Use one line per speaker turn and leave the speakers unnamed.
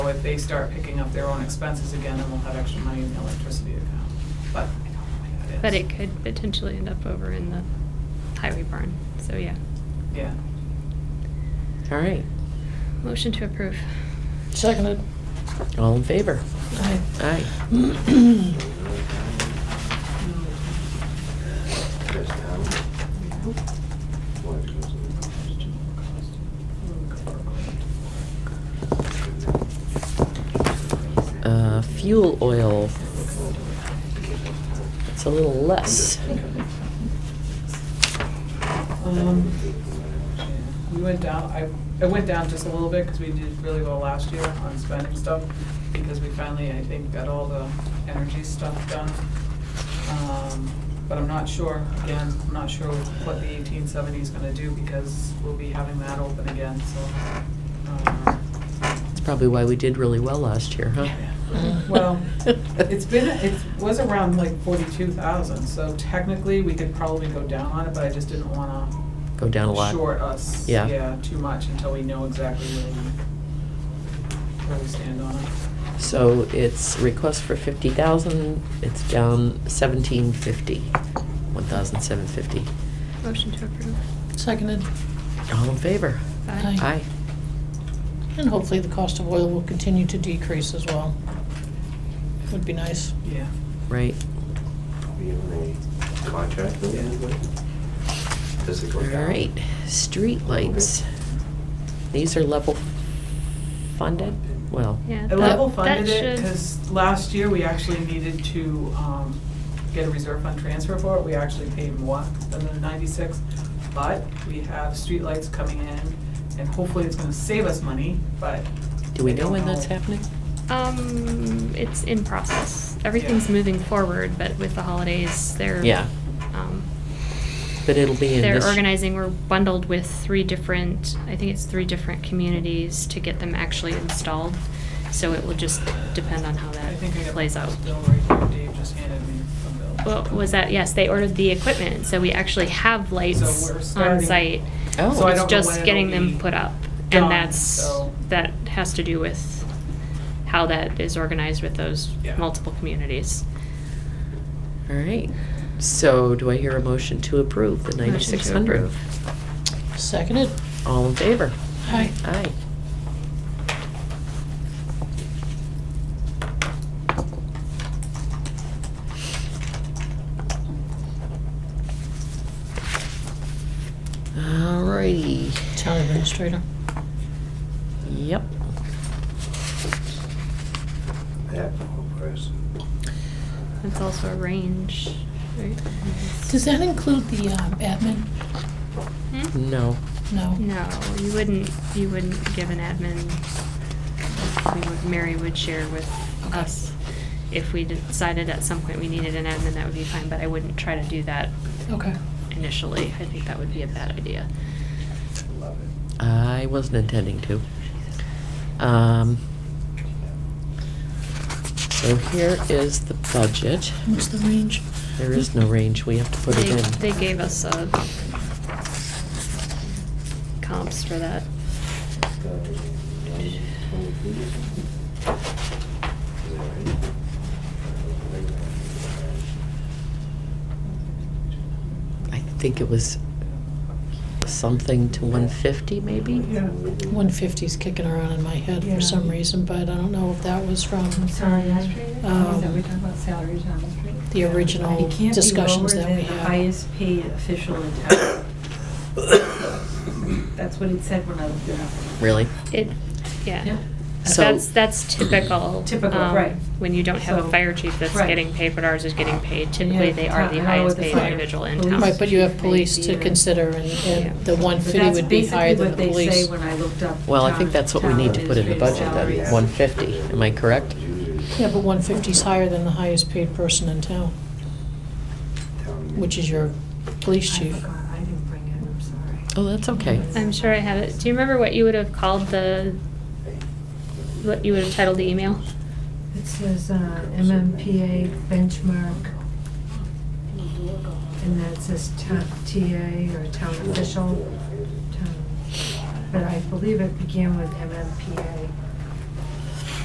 if they start picking up their own expenses again, then we'll have extra money in the electricity account. But I don't know when that is.
But it could potentially end up over in the highway barn, so yeah.
Yeah.
All right.
Motion to approve.
Seconded.
All in favor?
Aye.
Aye. Uh, fuel oil. It's a little less.
Um, We went down, I, it went down just a little bit because we did really well last year on spending stuff because we finally, I think, got all the energy stuff done. Um, But I'm not sure, again, I'm not sure what the eighteen seventy is gonna do because we'll be having that open again, so. um,
That's probably why we did really well last year, huh?
Mm-hmm. Well, It's been, it was around like forty-two thousand, so technically we could probably go down on it, but I just didn't wanna
Go down a lot.
short us,
Yeah.
yeah, too much until we know exactly where we, where we stand on it.
So it's request for fifty thousand, it's down seventeen fifty, one thousand seven fifty.
Motion to approve.
Seconded.
All in favor?
Aye.
Aye.
And hopefully the cost of oil will continue to decrease as well. Would be nice.
Yeah,
Right.
Be in a contract with anybody? Does it go
All
down?
right, streetlights. These are level funded? Well,
Yeah.
I
that-
level
that
funded it,
should-
because last year we actually needed to, um, get a reserve fund transfer for it, we actually paid more than the ninety-six, but we have streetlights coming in, and hopefully it's gonna save us money, but
do we
I
know
don't
when that's
know.
happening?
Um, it's in process. Everything's
Yeah.
moving forward, but with the holidays, they're.
Yeah,
um,
but it'll be in this.
They're organizing, we're bundled with three different, I think it's three different communities to get them actually installed. So it will just depend on how
I
that
think I got
plays out.
this bill right here, Dave just handed me a bill.
Well, was that, yes, they ordered the equipment, so we actually have
So we're
lights on
starting-
site.
Oh.
So I
It's
don't know when
just
it'll
getting them
be
put up.
done,
And that's,
so-
that has to do with how that is organized with those
Yeah.
multiple communities.
All right, so do I hear a motion to approve the
Motion to
ninety-six hundred?
approve.
Seconded.
All in favor?
Aye.
Aye. All righty,
Town administrator.
yep.
That one person.
It's also a range, right?
Does that include the um, admin?
Hmm?
No,
No.
No, you wouldn't, you wouldn't give an admin, we would, Mary would share with
Okay.
us. If we decided at some point we needed an admin, that would be fine, but I wouldn't try to do that
Okay.
initially. I think that would be a bad idea.
Love it.
I wasn't intending to. Um, so here is the budget.
What's the range?
There is no range, we have to put it
They,
in.
they gave us, uh, comps for that.
It's got to be 123 or something. Is that right?
I think it was something to one fifty, maybe?
Yeah.
150's kicking around in my head for some
Yeah.
reason, but I don't know if that was from
I'm sorry, administrator, is that
Um,
we're talking about salaries on the street?
the original
It can't be lower
discussions that
than
we
the
had.
highest paid official in town. That's what it said when I looked it up.
Really?
It, yeah.
So-
That's, that's typical.
Typical,
um,
right.
When you don't have a
So-
fire chief that's
right.
getting paid, but ours is getting paid.
And you
Typically,
have
they are
top-
the
how
highest
would the
paid
fire
individual in
police-
town.
Right, but you have
Maybe
police to
or-
consider, and-
Yeah.
and the
But
150 would be higher than the
That's basically what they
police.
say when I looked up.
Well, I think
town-
that's what we
town
need to put in the
administrative
budget, then,
salaries.
one fifty, am I correct?
Yeah, but 150's higher than the highest paid person in town, which is your police
I
chief.
forgot, I didn't bring it, I'm sorry.
Oh, that's okay.
I'm sure I have it. Do you remember what you would have called the, what you would have titled the email?
It says uh, MMPA benchmark, and that says town TA or town official, town, but I believe it began with MMPA.